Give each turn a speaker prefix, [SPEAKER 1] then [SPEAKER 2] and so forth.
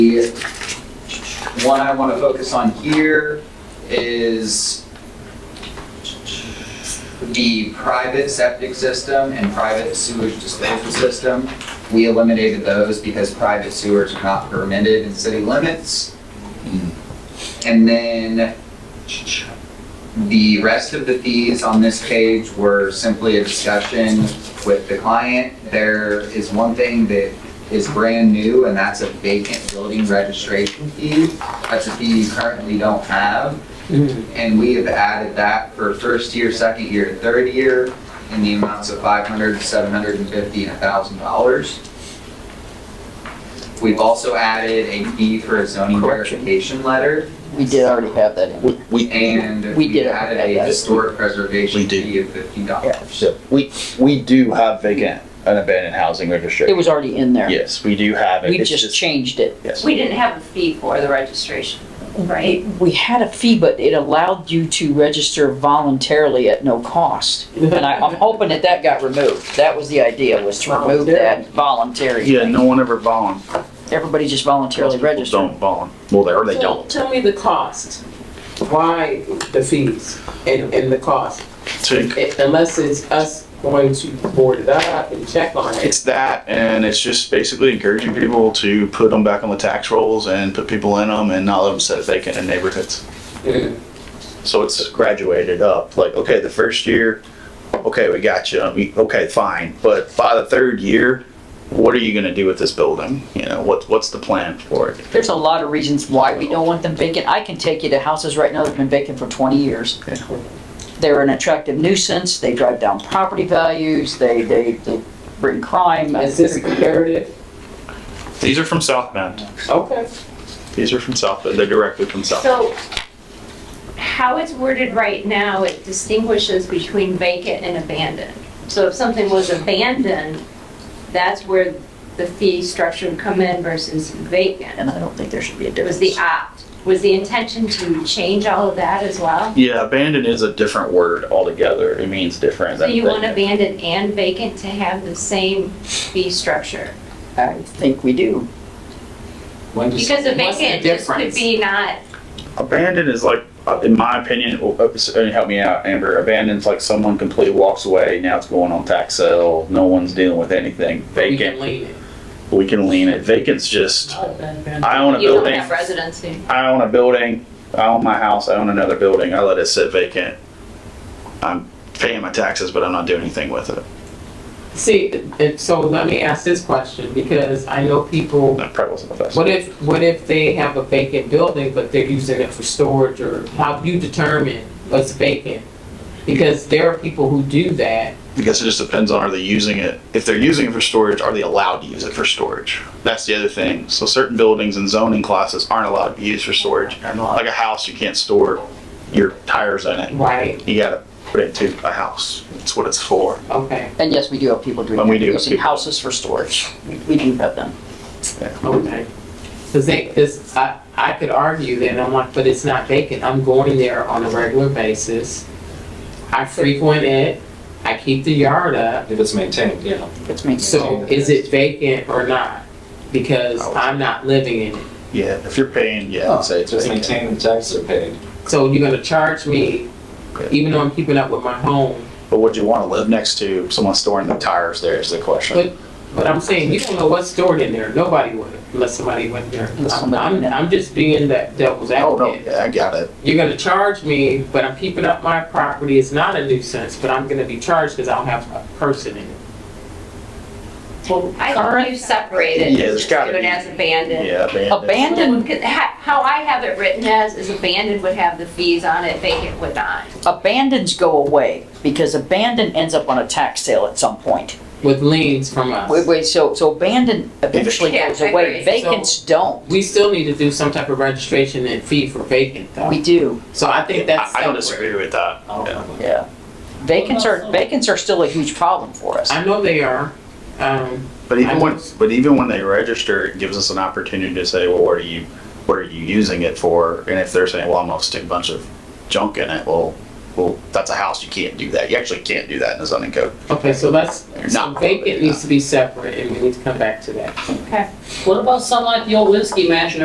[SPEAKER 1] The one I want to focus on here is the private septic system and private sewage disposal system. We eliminated those because private sewers are not permitted in city limits. And then the rest of the fees on this page were simply a discussion with the client. There is one thing that is brand new, and that's a vacant building registration fee. That's a fee you currently don't have. And we have added that for first year, second year, third year in the amounts of $500, $750, and $1,000. We've also added a fee for a zoning
[SPEAKER 2] Correction.
[SPEAKER 1] verification letter.
[SPEAKER 2] We did already have that in.
[SPEAKER 3] We, we,
[SPEAKER 1] And we
[SPEAKER 2] We did
[SPEAKER 1] added
[SPEAKER 2] have
[SPEAKER 1] a
[SPEAKER 2] that.
[SPEAKER 1] historic preservation
[SPEAKER 3] We did.
[SPEAKER 1] fee of fifty dollars.
[SPEAKER 3] so we, we do have vacant and abandoned housing
[SPEAKER 2] It
[SPEAKER 3] registration.
[SPEAKER 2] was already in there.
[SPEAKER 3] Yes, we do have it.
[SPEAKER 2] We
[SPEAKER 3] It's
[SPEAKER 2] just changed it.
[SPEAKER 3] Yes.
[SPEAKER 4] We didn't have a fee for the registration, right?
[SPEAKER 2] We had a fee, but it allowed you to register voluntarily at no cost. And I, I'm hoping that that got removed. That was the idea, was to remove that voluntary.
[SPEAKER 5] Yeah,
[SPEAKER 2] thing.
[SPEAKER 5] no one ever volunteers.
[SPEAKER 2] Everybody just voluntarily registered.
[SPEAKER 5] Don't volun. Well, they, or they
[SPEAKER 6] So,
[SPEAKER 5] don't.
[SPEAKER 6] Tell me the cost. Why the fees and, and the cost?
[SPEAKER 5] To-
[SPEAKER 6] It- Unless it's us going to board it up and check on it.
[SPEAKER 5] It's that, and it's just basically encouraging people to put them back on the tax rolls and put people in them and not let them sit vacant in neighborhoods.
[SPEAKER 6] Mm.
[SPEAKER 5] So it's
[SPEAKER 3] graduated up, like, okay, the first year, okay, we got you, we- okay, fine, but by the third year,
[SPEAKER 5] what are you gonna do with this building? You know, what, what's the plan for it?
[SPEAKER 2] There's a lot of reasons why we don't want them vacant. I can take you to houses right now that have been vacant for 20 years. They're an attractive nuisance. They drive down property values. They, they, they bring crime.
[SPEAKER 6] Is this comparative?
[SPEAKER 5] These are from South Bend.
[SPEAKER 6] Okay.
[SPEAKER 5] These are from South Bend. They're directly from South. Bend.
[SPEAKER 4] So how it's worded right now, it distinguishes between vacant and abandoned. So if something was abandoned, that's where the fee structure would come in versus vacant.
[SPEAKER 2] And I don't think there should be a
[SPEAKER 4] It
[SPEAKER 2] difference.
[SPEAKER 4] was the opt. Was the intention to change all of that as well?
[SPEAKER 5] Yeah,
[SPEAKER 3] abandoned
[SPEAKER 5] abandoned.
[SPEAKER 3] is a different word altogether, it means different
[SPEAKER 4] So
[SPEAKER 3] than.
[SPEAKER 4] you want abandoned and vacant to have the same fee structure?
[SPEAKER 2] I think we do.
[SPEAKER 4] Because a vacant just could be not,
[SPEAKER 3] Abandoned is like, uh, in my opinion, oh, uh, s- uh, help me out, Amber, abandoned's like someone completely walks away, now it's going on tax sale, no one's dealing with anything,
[SPEAKER 6] We can
[SPEAKER 3] vacant,
[SPEAKER 6] lean it.
[SPEAKER 3] we can lean it, vacant's just, I own a
[SPEAKER 4] you don't
[SPEAKER 3] building.
[SPEAKER 4] have residency.
[SPEAKER 3] I own a building, I own my house, I own another building, I let it sit vacant.
[SPEAKER 5] I'm paying my taxes, but I'm not doing anything with it.
[SPEAKER 6] See, and so let me ask this question, because I know people,
[SPEAKER 3] That probably wasn't the best.
[SPEAKER 6] what if, what if they have a vacant building, but they're using it for storage, or how do you determine what's vacant? Because there are people who do that.
[SPEAKER 5] I guess it just depends on are they using it. If they're using it for storage, are they allowed to use it for storage? That's the other thing. So certain buildings and zoning classes aren't allowed to be used for storage. Like a house, you can't store your tires in it.
[SPEAKER 6] Right,
[SPEAKER 5] You gotta put it to a house. That's what it's for.
[SPEAKER 6] okay,
[SPEAKER 2] And yes, we do have people doing
[SPEAKER 5] And we do have
[SPEAKER 2] using
[SPEAKER 5] people.
[SPEAKER 2] houses for storage. We- We do have them.
[SPEAKER 6] okay. Cause they, cause I, I could argue that, I'm like, but it's not vacant, I'm going there on a regular basis. I frequent it, I keep the yard up,
[SPEAKER 7] If it's maintained, yeah.
[SPEAKER 2] It makes
[SPEAKER 6] So is it vacant or not? Because I'm not living in it.
[SPEAKER 5] Yeah, if you're paying, yeah, I'd say it's
[SPEAKER 7] Just
[SPEAKER 5] vacant.
[SPEAKER 7] maintain the taxes are paid.
[SPEAKER 6] So you're gonna charge me, even though I'm keeping up with my home,
[SPEAKER 5] But would you wanna live next to someone storing their tires there is the question.
[SPEAKER 6] but I'm saying you don't know what's stored in there. Nobody would, unless somebody went there.
[SPEAKER 2] Unless
[SPEAKER 6] I'm,
[SPEAKER 2] somebody
[SPEAKER 6] I'm
[SPEAKER 2] went in.
[SPEAKER 6] I'm just being that devil's
[SPEAKER 5] Oh, no,
[SPEAKER 6] advocate.
[SPEAKER 5] yeah, I got it.
[SPEAKER 6] You're gonna charge me, but I'm keeping up my property. It's not a nuisance, but I'm gonna be charged because I don't have a person in it.
[SPEAKER 4] I thought you separated.
[SPEAKER 5] Yeah, there's gotta
[SPEAKER 4] Do it
[SPEAKER 5] be.
[SPEAKER 4] as abandoned.
[SPEAKER 5] Yeah, abandoned.
[SPEAKER 2] Abandoned,
[SPEAKER 4] Because ha- How I have it written as is abandoned would have the fees on it, vacant would not.
[SPEAKER 2] abandons go away because abandon ends up on a tax sale at some point.
[SPEAKER 6] With liens from us.
[SPEAKER 2] Wait, wait, so, so abandon eventually
[SPEAKER 4] Yeah,
[SPEAKER 2] goes
[SPEAKER 4] I
[SPEAKER 2] away.
[SPEAKER 4] agree.
[SPEAKER 2] Vacants don't.
[SPEAKER 6] We still need to do some type of registration and fee for vacant
[SPEAKER 2] We
[SPEAKER 6] though.
[SPEAKER 2] do,
[SPEAKER 6] So I think that's
[SPEAKER 5] I I don't
[SPEAKER 6] separate.
[SPEAKER 5] disagree with that. Yeah.
[SPEAKER 2] yeah. Vacants are, vacants are still a huge problem for us.
[SPEAKER 6] I know they are. Um,
[SPEAKER 5] But
[SPEAKER 6] I
[SPEAKER 5] even when,
[SPEAKER 6] don't-
[SPEAKER 5] but even when they register, it gives us an opportunity to say, well, what are you, what are you using it for? And if they're saying, well, I'm gonna stick a bunch of junk in it, well, Well, that's a house, you can't do that. You actually can't do that in a zoning code.
[SPEAKER 6] Okay, so let's, so
[SPEAKER 5] Not-
[SPEAKER 6] vacant needs to be separate and we need to come back to that.
[SPEAKER 4] Okay.
[SPEAKER 8] What about something like the old whiskey mansion